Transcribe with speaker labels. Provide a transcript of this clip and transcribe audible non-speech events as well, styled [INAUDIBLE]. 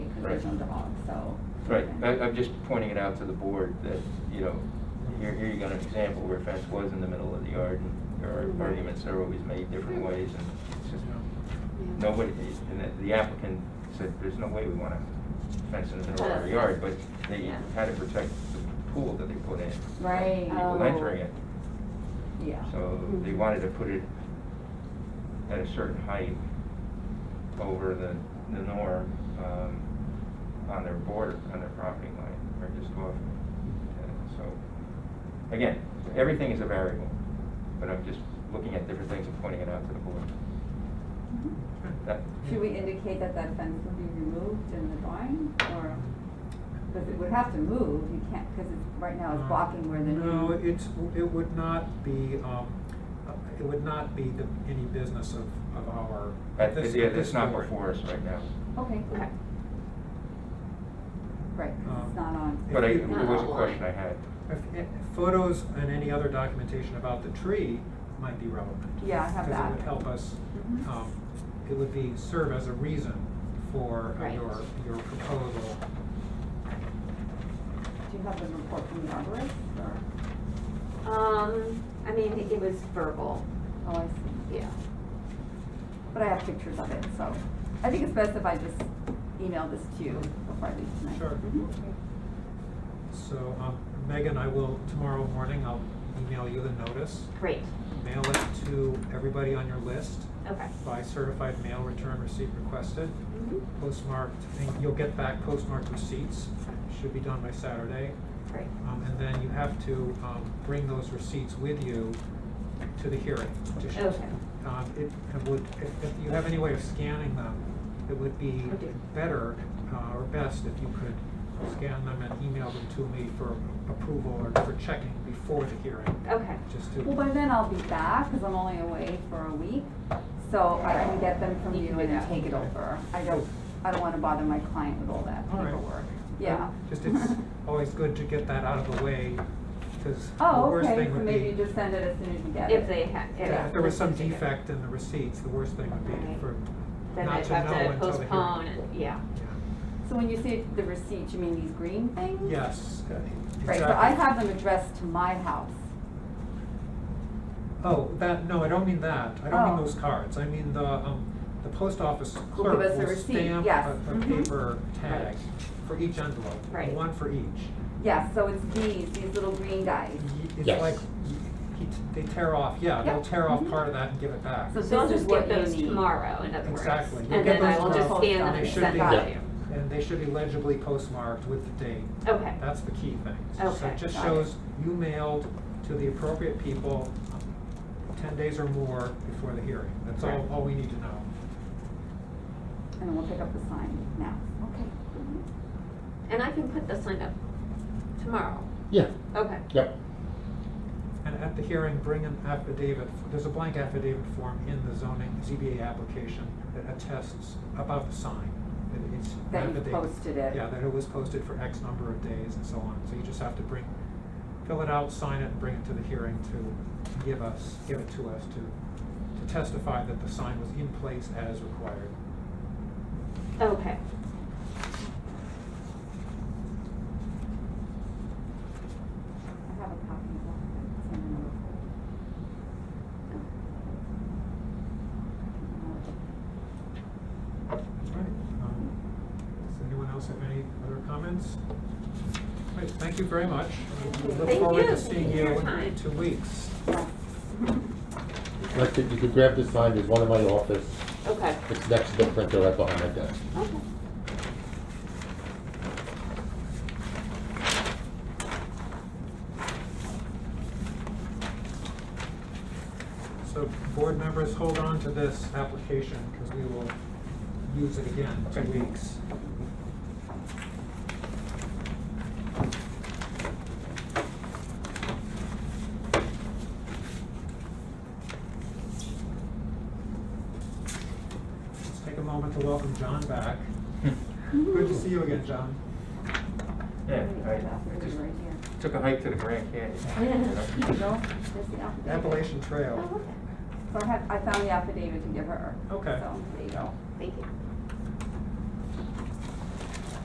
Speaker 1: provisions at all, so.
Speaker 2: Right, I, I'm just pointing it out to the board that, you know, here, here you got an example where a fence was in the middle of the yard and there are arguments that are always made different ways and it's just, nobody, and the- the applicant said, there's no way we want a fence in the middle of our yard, but they
Speaker 3: Yeah.
Speaker 2: had to protect the pool that they put in.
Speaker 1: Right.
Speaker 2: People
Speaker 3: Oh.
Speaker 2: entering it,
Speaker 1: Yeah.
Speaker 2: so they wanted to put it at a certain height over the, the norm, um, on their border, on their property line, or just off. Uh, So, again, everything is a variable, but I'm just looking at different things and pointing it out to the board.
Speaker 1: Mm-hmm.
Speaker 2: That-
Speaker 1: Should we indicate that that fence will be removed in the drawing, or, because it would have to move, you can't, because it's, right now it's blocking where the new.
Speaker 4: Uh, No, it's, it would not be, um, uh, it would not be the, any business of, of our.
Speaker 2: That,
Speaker 4: this-
Speaker 2: yeah,
Speaker 4: this
Speaker 2: that's not
Speaker 4: board.
Speaker 2: before us right now.
Speaker 1: Okay, okay. Right, 'cause it's
Speaker 4: Um,
Speaker 1: not on,
Speaker 2: But I,
Speaker 4: If
Speaker 2: it
Speaker 4: you-
Speaker 2: was a question
Speaker 1: [LAUGHS]
Speaker 2: I had.
Speaker 4: If- if Photos and any other documentation about the tree might be relevant.
Speaker 1: Yeah, I have
Speaker 4: Because
Speaker 1: that.
Speaker 4: it would help us,
Speaker 1: Mhm.
Speaker 4: um, it would be, serve as a reason for uh,
Speaker 3: Right.
Speaker 4: your, your proposal.
Speaker 1: do you have the report from the arborist, or,
Speaker 3: Um, I mean, it was verbal,
Speaker 1: oh, I see.
Speaker 3: yeah.
Speaker 1: But I have pictures of it, so I think it's best if I just email this to you before I leave tonight. Mm-hmm.
Speaker 4: Sure. So, um, Megan, I will, tomorrow morning, I'll email you the notice,
Speaker 3: Great,
Speaker 4: mail it to everybody on your list
Speaker 3: okay.
Speaker 4: by certified mail return receipt requested,
Speaker 3: Mhm.
Speaker 4: postmarked, and you'll get back postmarked receipts, should be done by Saturday.
Speaker 3: Great,
Speaker 4: Um, and then you have to, um, bring those receipts with you to the hearing. to show-
Speaker 3: Okay.
Speaker 4: Um, it, it would, if, if you have any way of scanning them, it would be
Speaker 3: I do.
Speaker 4: better, uh, or best if you could scan them and email them to me for approval or for checking before the hearing,
Speaker 3: okay,
Speaker 4: just to.
Speaker 1: Well, by then I'll be back, because I'm only away for a week, so I can get them from
Speaker 3: You
Speaker 1: you
Speaker 3: can do
Speaker 1: and
Speaker 3: that.
Speaker 1: take it over. I don't, I don't wanna bother my client with all that
Speaker 4: All right.
Speaker 1: paperwork, yeah. [LAUGHS]
Speaker 4: Just it's always good to get that out of the way, because the
Speaker 1: Oh,
Speaker 4: worst
Speaker 1: okay,
Speaker 4: thing
Speaker 1: so
Speaker 4: would be.
Speaker 1: maybe you just send it as soon as you get it.
Speaker 3: if they had,
Speaker 4: Yeah,
Speaker 3: yeah.
Speaker 4: if there was some
Speaker 3: let's do that.
Speaker 4: defect in the receipts, the worst thing would be
Speaker 3: Right.
Speaker 4: for
Speaker 3: Then
Speaker 4: not
Speaker 3: I'd
Speaker 4: to know
Speaker 3: have
Speaker 4: until
Speaker 3: to
Speaker 4: the hearing.
Speaker 3: postpone, and- yeah,
Speaker 1: So when you say the receipt, you mean these green
Speaker 4: Yeah.
Speaker 1: things?
Speaker 4: Yes, uh,
Speaker 1: Right, so I
Speaker 4: exactly.
Speaker 1: have them addressed to my house.
Speaker 4: Oh, that, no, I don't mean that. I don't mean
Speaker 1: Oh.
Speaker 4: those cards. I mean the, um, the post office
Speaker 1: Will
Speaker 4: clerk
Speaker 1: give us a
Speaker 4: will
Speaker 1: receipt,
Speaker 4: stamp
Speaker 1: yes.
Speaker 4: a, a
Speaker 1: Mhm.
Speaker 4: paper tag for each envelope,
Speaker 3: Right.
Speaker 4: one for each.
Speaker 1: Yes, so it's these, these little green guys.
Speaker 4: Y-
Speaker 5: Yes.
Speaker 4: It's like, y- he t- they tear off, yeah,
Speaker 1: Yeah.
Speaker 4: they'll tear off
Speaker 1: Mhm.
Speaker 4: part of that and give it back.
Speaker 1: So
Speaker 3: so I'll
Speaker 1: this is
Speaker 3: just
Speaker 1: what
Speaker 3: get
Speaker 1: you need.
Speaker 3: those tomorrow, in other words.
Speaker 4: Exactly. You'll
Speaker 3: And
Speaker 4: get
Speaker 3: then I
Speaker 4: those
Speaker 3: will just
Speaker 4: tomorrow.
Speaker 3: scan them
Speaker 4: They
Speaker 3: and
Speaker 4: should
Speaker 3: send
Speaker 4: be-
Speaker 3: them
Speaker 5: Yeah.
Speaker 3: to you.
Speaker 4: And they should be legibly postmarked with the date.
Speaker 3: Okay,
Speaker 4: That's the key thing. So
Speaker 3: Okay,
Speaker 4: it just
Speaker 1: got it.
Speaker 4: shows you mailed to the appropriate people um, ten days or more before the hearing. That's all,
Speaker 3: Correct.
Speaker 4: all we need to know.
Speaker 1: And then we'll pick up the sign now. Okay.
Speaker 3: and I can put the sign up tomorrow,
Speaker 5: Yeah,
Speaker 3: okay,
Speaker 5: yep,
Speaker 4: And at the hearing, bring an affidavit, there's a blank affidavit form in the zoning ZBA application that attests about the sign. that it's an
Speaker 1: That you
Speaker 4: affidavit.
Speaker 1: posted it.
Speaker 4: Yeah, that it was posted for X number of days and so on. So you just have to bring, fill it out, sign it, and bring it to the hearing to give us, give it to us to, to testify that the sign was in place as required.
Speaker 3: okay.
Speaker 1: I have a copy of all of it. It's in another folder.
Speaker 4: All right. um, Does anyone else have any other comments? All right, thank you very much. We Look
Speaker 3: Thank
Speaker 4: forward
Speaker 3: you.
Speaker 4: to seeing
Speaker 3: Thank you
Speaker 4: you
Speaker 3: for your
Speaker 4: in
Speaker 3: time.
Speaker 4: two weeks.
Speaker 5: like, you could grab this sign, there's one in my office,
Speaker 3: Okay,
Speaker 5: it's next to the printer right behind my desk.
Speaker 3: okay.
Speaker 4: So board members, hold on to this application because we will use it again in two weeks. Let's take a moment to welcome John back. Good to see you again, John.
Speaker 2: Yeah,
Speaker 1: Wait,
Speaker 2: I
Speaker 1: I got
Speaker 2: I
Speaker 1: it
Speaker 2: just
Speaker 1: right here.
Speaker 2: took a hike to the
Speaker 1: [LAUGHS]
Speaker 2: Grand Canyon. you
Speaker 1: Here
Speaker 2: know?
Speaker 1: you go. There's the affidavit.
Speaker 4: Appalachian
Speaker 3: Oh,
Speaker 4: Trail.
Speaker 3: okay.
Speaker 1: So I had, I found the affidavit to give her.
Speaker 4: Okay.
Speaker 1: So, there you go.
Speaker 3: Thank you.